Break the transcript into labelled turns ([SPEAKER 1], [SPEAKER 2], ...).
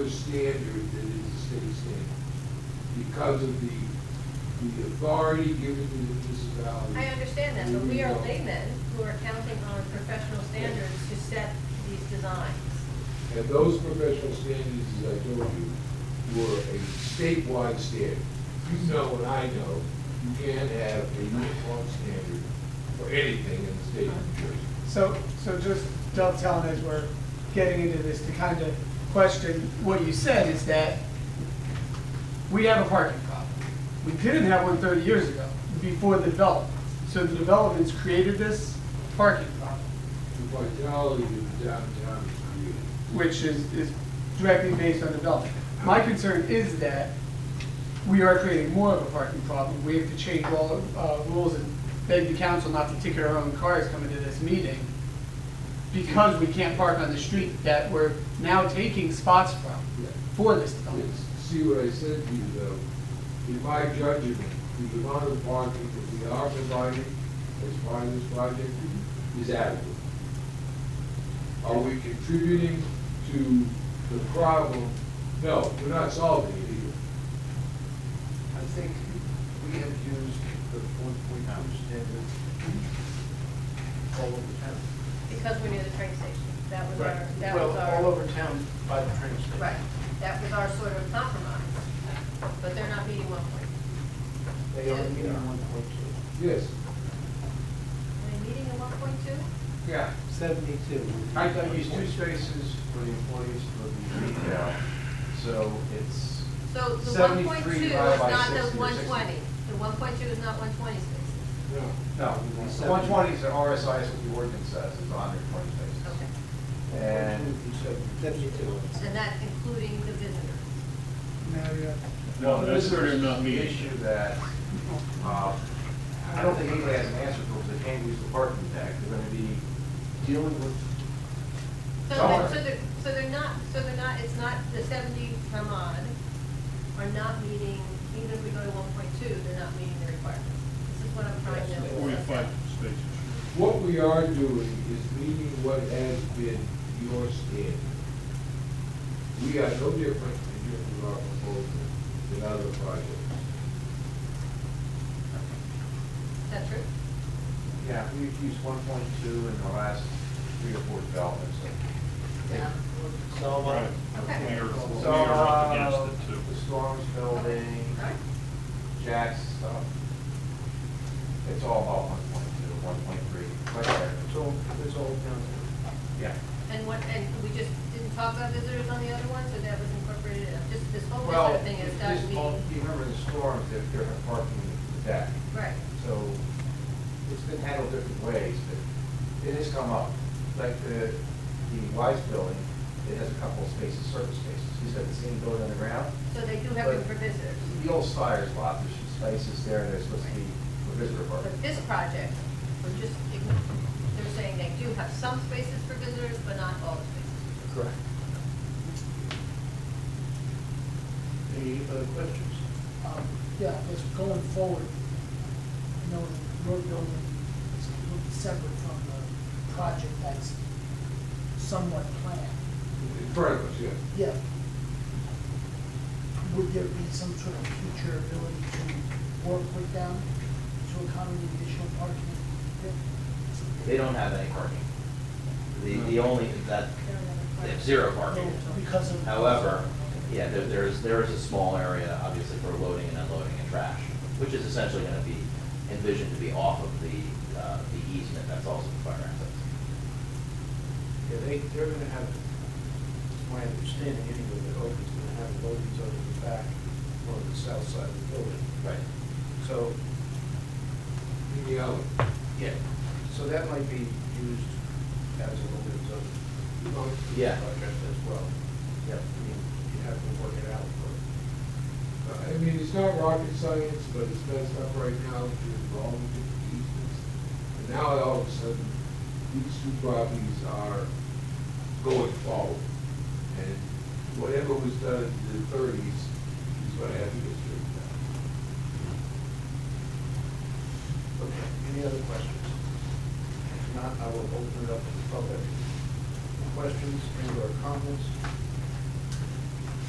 [SPEAKER 1] a standard that is a state standard because of the, the authority given to the municipality.
[SPEAKER 2] I understand that, but we are
[SPEAKER 1] Well,
[SPEAKER 2] laymen who are counting on professional standards to set these designs.
[SPEAKER 1] And those professional standards, as I told you, were a statewide standard. You know and I know, you can't have a uniform standard for anything in the state of New Jersey.
[SPEAKER 3] So, so just dovetailing as we're getting into this, to kind of question what you said is that we have a parking problem. We didn't have one 30 years ago, before the development. So the developments created this parking problem,
[SPEAKER 1] The vitality of downtown is created.
[SPEAKER 3] which is, is directly based on development. My concern is that we are creating more of a parking problem. We have to change all, uh, rules and beg the council not to ticket our own cars coming to this meeting because we can't park on the street that we're now taking spots from
[SPEAKER 1] Yeah.
[SPEAKER 3] for this development.
[SPEAKER 1] It's- See what I said to you, though, in my judgment, the amount of parking that we are providing as part of this project is adequate. Are we contributing to the problem? No, we're not solving it either.
[SPEAKER 4] I think we have used the one point two standard all over town.
[SPEAKER 2] Because we knew the train station, that was our, that
[SPEAKER 4] Well,
[SPEAKER 2] was our.
[SPEAKER 4] all over town by the train station.
[SPEAKER 2] Right, that was our sort of compromise, but they're not meeting one point.
[SPEAKER 4] They are meeting one point two.
[SPEAKER 1] Yes.
[SPEAKER 2] Are they meeting a one point two?
[SPEAKER 4] Yeah. Seventy-two. I thought you used two spaces for the employees for the retail, so it's.
[SPEAKER 2] So the one
[SPEAKER 4] 73
[SPEAKER 2] point two is
[SPEAKER 4] divided by
[SPEAKER 2] not the
[SPEAKER 4] 60 or
[SPEAKER 2] one
[SPEAKER 4] 60.
[SPEAKER 2] twenty, the one point two is not one twenty spaces.
[SPEAKER 1] No.
[SPEAKER 4] No, one twenty is an RSI, is what the ordinance says, is hundred and twenty spaces.
[SPEAKER 2] Okay.
[SPEAKER 4] And,
[SPEAKER 5] Seventy-two.
[SPEAKER 2] And that's including the visitors.
[SPEAKER 4] no, this is
[SPEAKER 6] not
[SPEAKER 4] the
[SPEAKER 6] me.
[SPEAKER 4] issue that, uh, I don't think anybody has an answer for, because they can't use the parking deck, they're gonna be dealing with,
[SPEAKER 2] So,
[SPEAKER 4] Somewhere.
[SPEAKER 2] that- so they're, so they're not, so they're not, it's not, the seventy some odd are not meeting, even if we go to one point two, they're not meeting the requirements. This is what I'm trying to.
[SPEAKER 6] Forty-five spaces.
[SPEAKER 1] What we are doing is meeting what has been your standard. We are no different in terms of our proposal than other projects.
[SPEAKER 2] Is that true?
[SPEAKER 4] yeah, we've used one point two in the last three or four developments.
[SPEAKER 2] Yeah.
[SPEAKER 5] So, uh,
[SPEAKER 2] Okay.
[SPEAKER 6] We are, we
[SPEAKER 4] So,
[SPEAKER 6] are up
[SPEAKER 4] uh,
[SPEAKER 6] against it too.
[SPEAKER 4] the Storms Building,
[SPEAKER 2] All right.
[SPEAKER 4] Jack's stuff, it's all about one point two, one point three, right there. It's all, it's all down there. Yeah.
[SPEAKER 2] And what, and we just didn't talk about visitors on the other one, so that was incorporated, in- just this whole
[SPEAKER 4] Well,
[SPEAKER 2] visitor thing is not
[SPEAKER 4] this all-
[SPEAKER 2] meeting.
[SPEAKER 4] you remember the storms, they're, they're parking the deck,
[SPEAKER 2] Right.
[SPEAKER 4] so it's been handled different ways, but it has come up. Like the, the Wise Building, it has a couple of spaces, surface spaces, he's got the same building on the ground.
[SPEAKER 2] So they do have room
[SPEAKER 4] But-
[SPEAKER 2] for visitors.
[SPEAKER 4] The old Spires lot, there's some spaces there, and there's supposed to be a visitor parking.
[SPEAKER 2] But this project, we're just, ign- they're saying they do have some spaces for visitors, but not all spaces.
[SPEAKER 4] Correct.
[SPEAKER 5] any other questions?
[SPEAKER 7] Um, Yeah, it's going forward, you know, the road building is completely separate from the project that's somewhat planned.
[SPEAKER 1] In front of us, yes.
[SPEAKER 7] Yeah. Would there be some sort of future ability to work with them to accommodate additional parking?
[SPEAKER 8] They don't have any parking. The, the only, that,
[SPEAKER 2] They don't have a
[SPEAKER 8] they have
[SPEAKER 2] requirement.
[SPEAKER 8] zero parking.
[SPEAKER 7] Because of.
[SPEAKER 8] However, yeah, there, there is, there is a small area, obviously, for loading and unloading and trash, which is essentially gonna be envisioned to be off of the, uh, the easement that's also the fire access.
[SPEAKER 5] Yeah, they, they're gonna have, my understanding anyway, that Oakland's gonna have loadings over the back on the south side of the building.
[SPEAKER 8] Right.
[SPEAKER 5] So,
[SPEAKER 1] In the alley.
[SPEAKER 8] Yeah.
[SPEAKER 5] so that might be used as a loading zone.
[SPEAKER 8] Yeah.
[SPEAKER 5] Project as well. Yeah. I mean, you have to work it out, but.
[SPEAKER 1] I mean, it's not rocket science, but it's messed up right now to involve different easements. And now all of a sudden, these two properties are going forward. And whatever was done in the thirties is what have to get straightened out.
[SPEAKER 5] Okay, any other questions? If not, I will open it up to the public. Questions and or comments?